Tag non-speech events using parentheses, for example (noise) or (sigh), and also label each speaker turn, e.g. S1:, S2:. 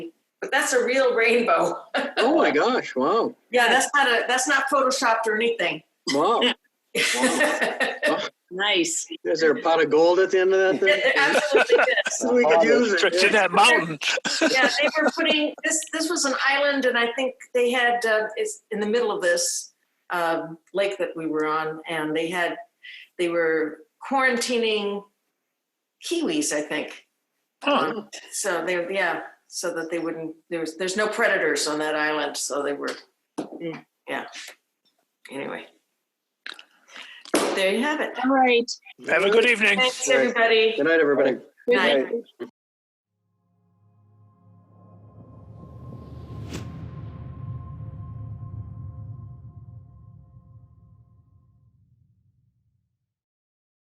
S1: But that's a real rainbow.
S2: Oh my gosh, wow,
S1: Yeah, that's not a, that's not photoshopped or anything.
S2: wow.
S1: (laughs)
S3: Nice.
S2: Is there a pot of gold at the end of that
S4: (laughs)
S1: It
S2: thing?
S1: absolutely is.
S2: We
S4: Oh,
S2: could use
S4: Stretch in
S2: it.
S4: that mountain.
S1: Yeah, they were putting, this, this was an island and I think they had, uh, it's in the middle of this um, lake that we were on and they had, they were quarantining kiwis, I think.
S4: Huh.
S1: So they, yeah, so that they wouldn't, there was, there's no predators on that island, so they were, yeah. Anyway. There you have it.
S3: All right.
S4: Have a good evening.
S1: Thanks, everybody.
S2: Good night, everybody.
S1: Night.
S3: Good